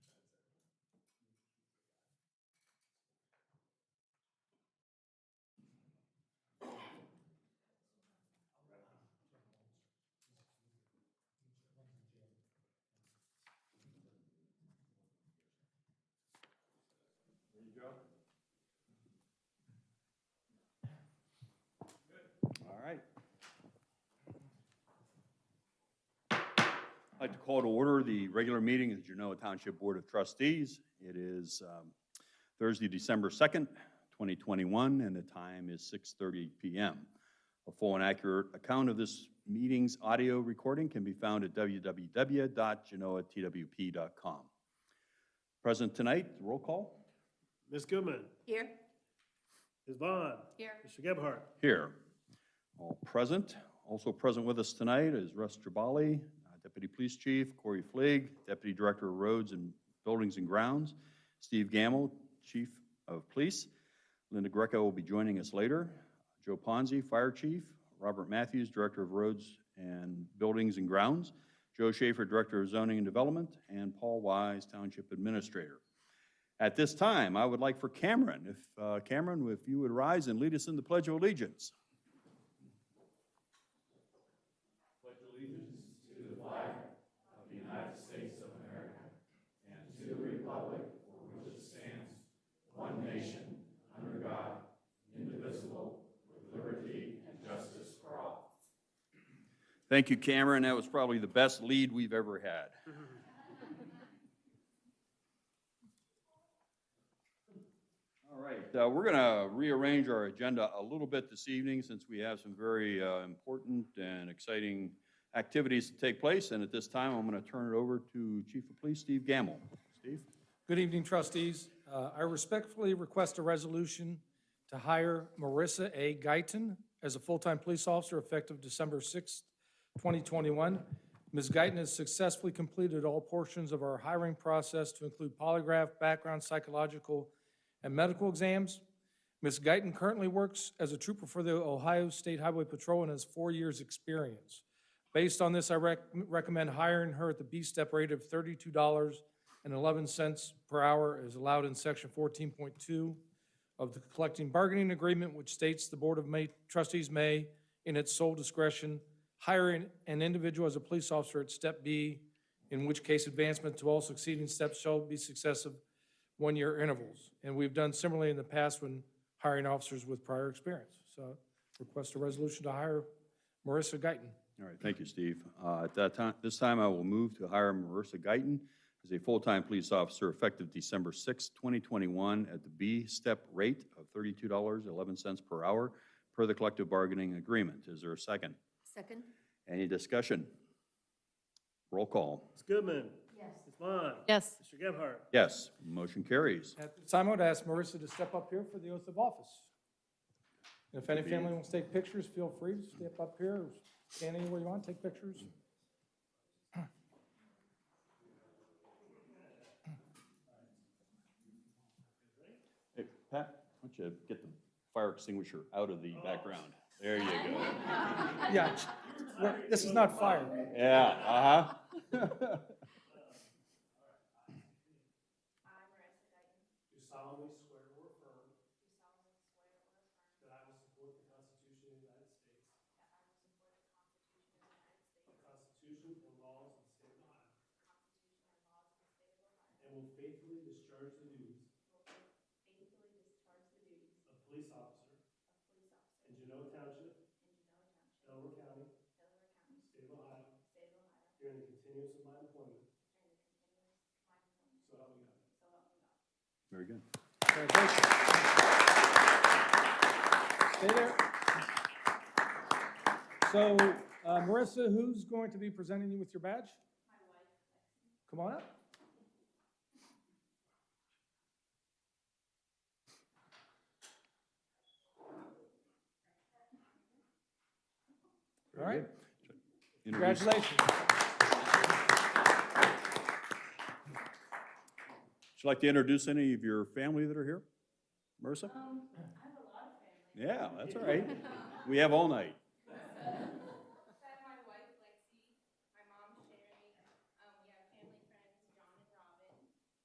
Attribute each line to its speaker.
Speaker 1: All right. I'd like to call to order the regular meeting of the Genoa Township Board of Trustees. It is um, Thursday, December 2nd, 2021, and the time is 6:30 PM. A full and accurate account of this meeting's audio recording can be found at www.genoatwp.com. Present tonight, roll call.
Speaker 2: Ms. Goodman,
Speaker 3: Here.
Speaker 2: Ms. Vaughn,
Speaker 3: Here.
Speaker 2: Mr. Gebhardt,
Speaker 1: Here. All present. Also present with us tonight is Russ Tribali, uh, Deputy Police Chief, Corey Fleig, Deputy Director of Roads and Buildings and Grounds, Steve Gamble, Chief of Police. Linda Greco will be joining us later. Joe Ponzi, Fire Chief, Robert Matthews, Director of Roads and Buildings and Grounds, Joe Schaefer, Director of Zoning and Development, and Paul Wise, Township Administrator. At this time, I would like for Cameron, if, uh, Cameron, if you would rise and lead us in the Pledge of Allegiance. Thank you, Cameron. That was probably the best lead we've ever had. All right, uh, we're going to rearrange our agenda a little bit this evening since we have some very uh, important and exciting activities to take place. And at this time, I'm going to turn it over to Chief of Police Steve Gamble. Steve?
Speaker 4: Good evening, trustees. Uh, I respectfully request a resolution to hire Marissa A. Guyton as a full-time police officer effective December 6th, 2021. Ms. Guyton has successfully completed all portions of our hiring process to include polygraph, background, psychological, and medical exams. Ms. Guyton currently works as a trooper for the Ohio State Highway Patrol and has four years' experience. Based on this, I rec- recommend hiring her at the B-step rate of thirty-two dollars and eleven cents per hour as allowed in section fourteen point two of the collecting bargaining agreement, which states the Board of May, Trustees may, in its sole discretion, hire an- an individual as a police officer at step B, in which case advancement to all succeeding steps shall be successive one-year intervals. And we've done similarly in the past when hiring officers with prior experience. So request a resolution to hire Marissa Guyton.
Speaker 1: All right, thank you, Steve. Uh, At that time, this time, I will move to hire Marissa Guyton as a full-time police officer effective December 6, 2021, at the B-step rate of $32.11 per hour per the collective bargaining agreement. Is there a second?
Speaker 3: Second?
Speaker 1: Any discussion? Roll call.
Speaker 2: Ms. Goodman,
Speaker 3: Yes.
Speaker 2: Ms. Vaughn,
Speaker 3: Yes.
Speaker 2: Mr. Gebhardt,
Speaker 1: Yes, motion carries.
Speaker 4: At this time, I would ask Marissa to step up here for the oath of office. And if any family wants to take pictures, feel free to step up here, or stand anywhere you want, take pictures.
Speaker 1: Hey, Pat, why don't you get the fire extinguisher out of the background? There you go.
Speaker 4: Yeah, we're- this is not fire.
Speaker 1: Yeah, uh-huh.
Speaker 2: Do solemnly swear or affirm. That I will support the Constitution of the United States. The Constitution and laws of the state of Ohio. And will faithfully discharge the duties. Of police officer. In Genoa Township. Delaware County. State of Ohio. During the continuance of my employment. So help me God.
Speaker 1: Very good.
Speaker 4: Stay there. So, uh, Marissa, who's going to be presenting you with your badge? Come on up. All right,
Speaker 1: Introduce-
Speaker 4: congratulations.
Speaker 1: Would you like to introduce any of your family that are here? Marissa? I have a lot of family. Yeah, that's all right. We have all night.